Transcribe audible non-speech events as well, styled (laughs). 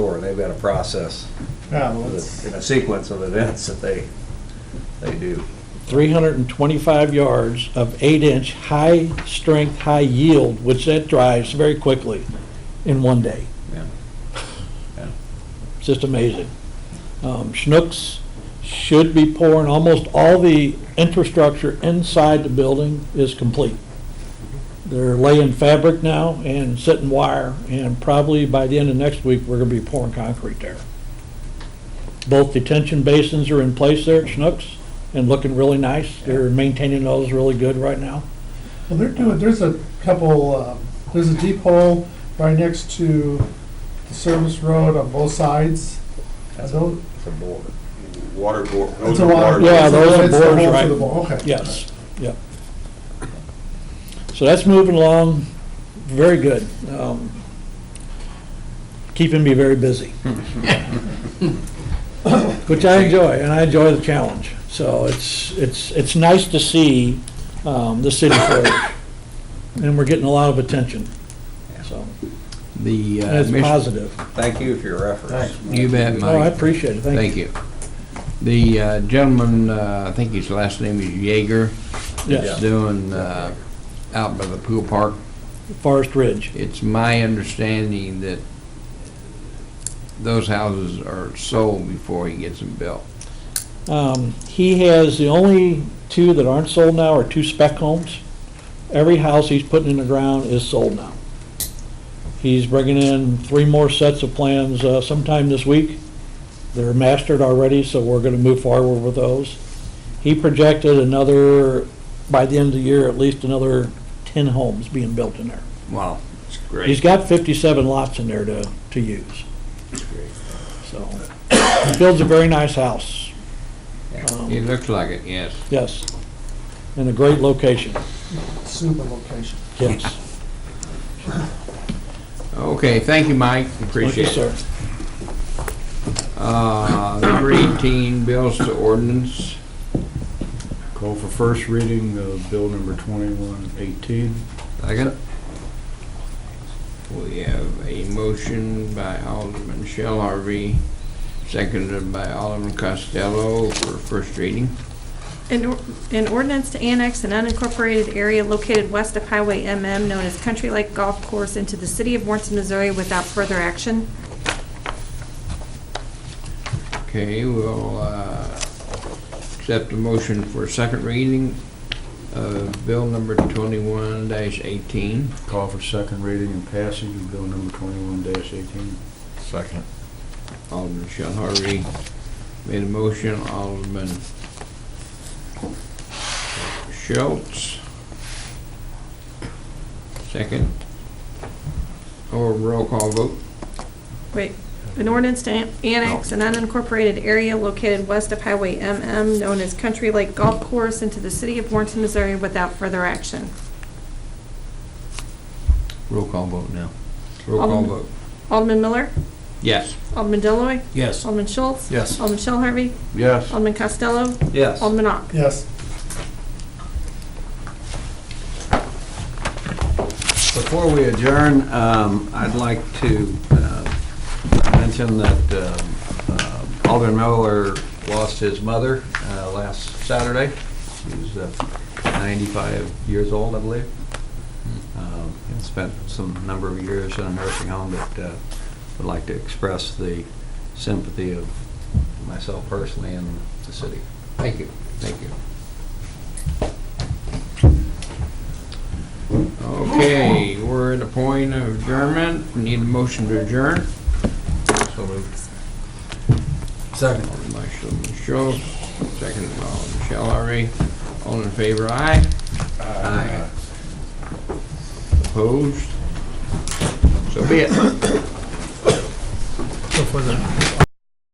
and they've got a process, Yeah, well, it's- and a sequence of events that they, they do. 325 yards of 8-inch high-strength, high-yield, which that drives very quickly in one day. Yeah. Yeah. It's just amazing. Um, Schnucks should be pouring, almost all the infrastructure inside the building is complete. They're laying fabric now and setting wire, and probably by the end of next week, we're gonna be pouring concrete there. Both detention basins are in place there at Schnucks and looking really nice. They're maintaining those really good right now. well, they're doing, there's a couple, um, there's a deep hole right next to the service road on both sides. I That's don't- It's a board. Water bore, It's those a are water- water. it's Yeah, a- those are it's the bores, hole for right. the bore. Okay. Yes, yep. So that's moving along very good. um, Keeping me very busy. (laughs) Which I enjoy, and I enjoy the challenge. So it's, it's, it's nice to see um, the city flourish. And we're getting a lot of attention, so, The, and uh, it's Miss- positive. Thank you for your efforts. you bet, Oh, I Mike. appreciate it, thank Thank you. you. The uh, gentleman, uh, I think his last name is Jaeger, that's Yes, doing uh, out by the pool park. Forest Ridge, It's my understanding that those houses are sold before he gets them built. Um, He has, the only two that aren't sold now are two spec homes. Every house he's putting in the ground is sold now. He's bringing in three more sets of plans uh, sometime this week. They're mastered already, so we're going to move forward with those. He projected another, by the end of the year, at least another 10 homes being built in there. Wow, It's He's great. got 57 lots in there to, to use. So, he builds a very nice house. Um, it looks like it, yes. Yes, in a great location, Super location. yes. Okay, thank you, Mike, Thank you, appreciate sir. it. Uh, Number 18, bills to ordinance. Call for first reading of bill number 2118. Second. We have a motion by Alderman Shell Harvey, seconded by Alderman Costello for first reading. An or- an ordinance to annex an unincorporated area located west of Highway MM known as Country Lake Golf Course into the city of Warrenton, Missouri without further action. Okay, we'll uh, accept a motion for second reading of bill number 21-18. Call for second reading and passage of bill number 21-18. Second. Alderman Shell Harvey made a motion, Alderman Schultz. Second. Or roll call vote. Wait, an ordinance to an- annex an unincorporated area located west of Highway MM known as Country Lake Golf Course into the city of Warrenton, Missouri without further action. Roll call vote now. Roll call Alderman- vote. Alderman Miller? Yes. Alderman Deloy, Yes. Alderman Schultz? Yes. Alderman Shell Harvey? Yes. Alderman Costello? Yes. Alderman Ock? Yes, Before we adjourn, um, I'd like to uh, mention that um, uh, Alderman Miller lost his mother uh, last Saturday. She was uh, 95 years old, I believe. Um, And spent some number of years in a nursing home, but uh, would like to express the sympathy of myself personally and the city. Thank you, thank you. Okay, we're at a point of adjournment. Need a motion to adjourn. So moved. Second. Alderman Schultz, second by Alderman Shell Harvey. All in favor, aye? Aye. Opposed? So be it. So for the